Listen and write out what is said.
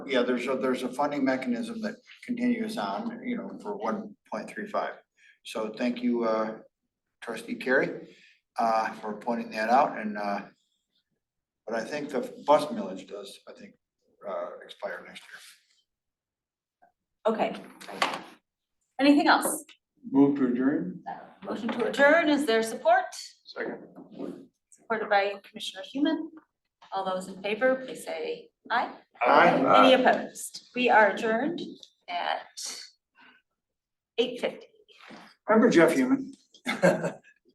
yeah, there's a, there's a funding mechanism that continues on, you know, for one point three five. So thank you, uh, trustee Carey, uh, for pointing that out and, uh, but I think the bus millage does, I think, uh, expire next year. Okay. Anything else? Move to adjourn? Motion to adjourn, is there support? Second. Supported by Commissioner Human. All those in favor, please say aye. Aye. Any opposed? We are adjourned at eight fifty. Remember Jeff Human?